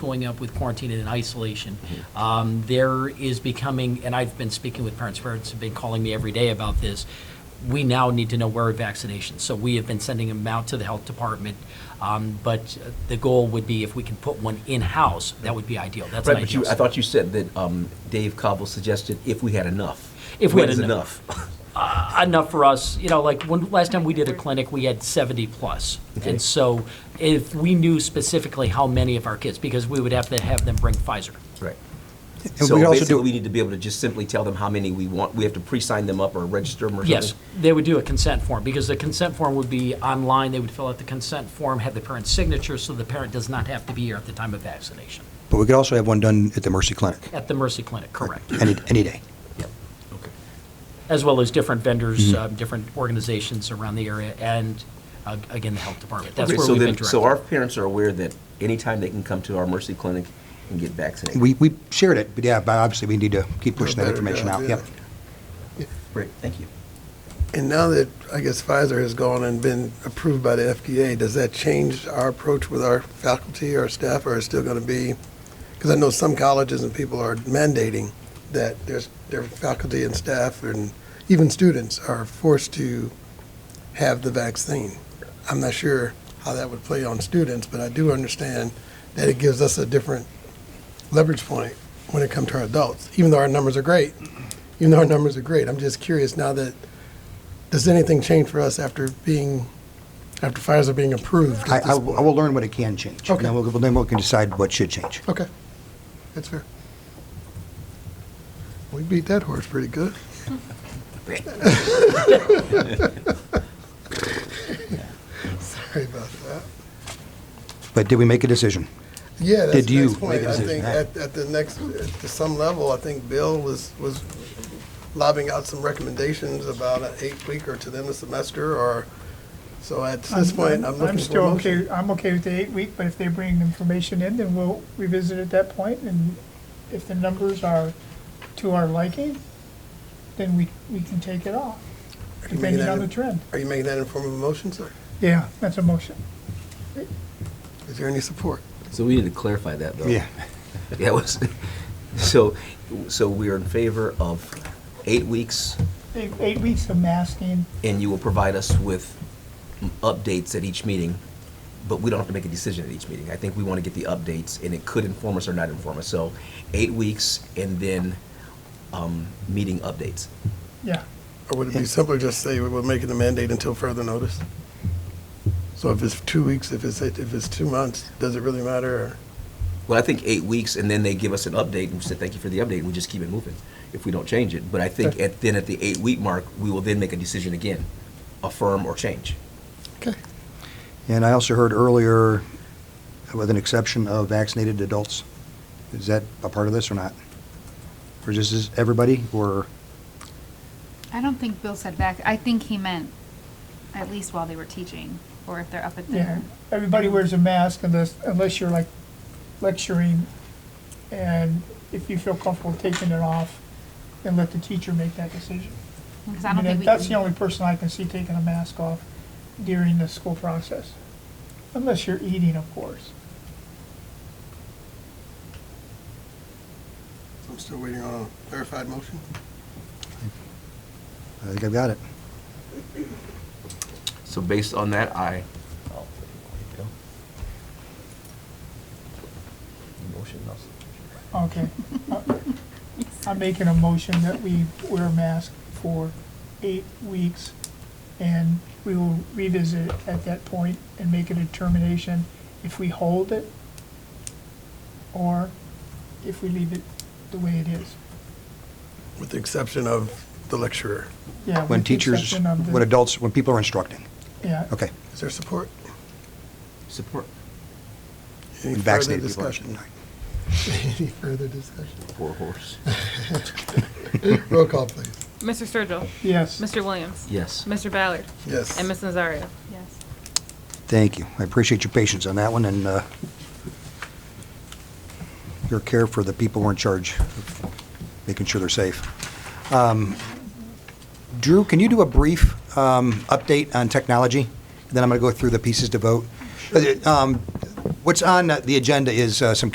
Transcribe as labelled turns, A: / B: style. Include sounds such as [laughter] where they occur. A: going up with quarantine and isolation.
B: Mm-hmm.
A: Um, There is becoming, and I've been speaking with parents, parents have been calling me every day about this, we now need to know where are vaccinations. So we have been sending them out to the health department, um, but the goal would be if we can put one in-house, that would be ideal. That's an
B: Right, but
A: ideal.
B: you, I thought you said that um, Dave Cobble suggested if we had enough.
A: If we had
B: When's
A: enough. enough for us, you know, like when, last time we did a clinic, we had 70 plus.
B: Okay.
A: And so if we knew specifically how many of our kids, because we would have to have them bring Pfizer.
B: [laughs] Right.
C: And
B: So
C: we also
B: basically, we
C: do,
B: need to be able to just simply tell them how many we want. We have to pre-sign them up or register them or something?
A: Yes, they would do a consent form, because the consent form would be online, they would fill out the consent form, have the parent's signature, so the parent does not have to be here at the time of vaccination.
C: but we could also have one done at the Mercy Clinic,
A: At the Mercy Clinic, correct.
C: any, any day.
B: Okay.
A: As well as different vendors,
B: Mm-hmm.
A: um, different organizations around the area, and uh, again, the health department. That's
B: Okay,
A: where
B: so
A: we've been
B: then-
A: directed.
B: So our parents are aware that anytime they can come to our Mercy Clinic and get vaccinated?
C: We, we shared it, but yeah, but obviously we need to keep pushing that
D: better
C: information
D: job,
C: out,
D: yeah.
C: yep.
B: Great, thank you.
D: And now that, I guess Pfizer has gone and been approved by the FDA, does that change our approach with our faculty or staff, or is it still going to be? Because I know some colleges and people are mandating that there's, their faculty and staff and even students are forced to have the vaccine. I'm not sure how that would play on students, but I do understand that it gives us a different leverage point when it comes to our adults, even though our numbers are great. Even though our numbers are great, I'm just curious now that does anything change for us after being, after fires are being approved?
C: I,
D: at
C: I
D: this
C: will I
D: point?
C: will learn what it can change. and Then
D: Okay.
C: we'll, then we can decide what should change.
D: Okay, that's fair. We beat that horse pretty good. Sorry about that.
C: But did we make a decision?
D: Yeah, that's
C: Did
D: the
C: you
D: next point.
C: make a
D: I
C: decision?
D: think at, at the next, to some level, I think Bill was, was lobbing out some recommendations about an eight-week or to the end of semester or, so at this point, I'm looking for a
E: still
D: motion.
E: okay, I'm okay with the eight week, but if they bring information in, then we'll revisit at that point, and if the numbers are to our liking, then we, we can take it off,
D: Are you making
E: depending
D: that
E: on the
D: in-
E: trend.
D: Are you making that in form of a motion, sir?
E: Yeah, that's a motion.
D: Is there any support?
B: So we need to clarify that, though. [laughs]
C: Yeah.
B: That was, [laughs] so, so we are in favor of eight weeks,
E: Eight, eight weeks of masking,
B: and you will provide us with updates at each meeting, but we don't have to make a decision at each meeting. I think we want to get the updates, and it could inform us or not inform us. So eight weeks and then um, meeting updates.
E: yeah.
D: Or would it be simpler just say we will make it a mandate until further notice? So if it's two weeks, if it's, if it's two months, does it really matter? or-
B: Well, I think eight weeks, and then they give us an update and say, thank you for the update, and we just keep it moving if we don't change it. But I think at, then at the eight-week mark, we will then make a decision again, affirm or change.
D: Okay.
C: And I also heard earlier, with an exception of vaccinated adults, is that a part of this or not? Or is this is everybody, or,
F: I don't think Bill said back. I think he meant at least while they were teaching, or if they're up at
E: Yeah,
F: their.
E: everybody wears a mask unless, unless you're like lecturing, and if you feel comfortable taking it off, then let the teacher make that decision.
F: Because I
E: I
F: don't
E: mean,
F: think we.
E: that's
F: can-
E: the only person I can see taking a mask off during the school process, unless you're eating, of course.
D: I'm still waiting on a verified motion.
C: I think I've got it.
B: So based on that, I. Oh, Motion,
F: [laughs]
E: Okay. I'm making a motion that we wear a mask for eight weeks, and we will revisit it at that point and make a determination if we hold it or if we leave it the way it is.
D: With the exception of the lecturer.
E: Yeah.
C: When
E: with the
C: teachers,
E: exception of the-
C: when adults, when people are instructing.
E: Yeah.
C: Okay.
D: Is there support?
B: Support.
D: Any
C: When
D: further
C: vaccinated people are
D: discussion?
C: instructing.
D: [laughs] Any further discussion?
B: Poor horse.
D: Roll call, please.
G: Mr. Sturgill.
E: Yes.
G: Mr. Williams.
B: Yes.
G: Mr. Ballard.
D: Yes.
G: And Ms. Nazario.
F: Yes.
C: Thank you. I appreciate your patience on that one and uh, your care for the people who are in charge, of making sure they're safe. Um, Drew, can you do a brief um, update on technology? Then I'm going to go through the pieces to vote. Uh, um, What's on the agenda is uh, some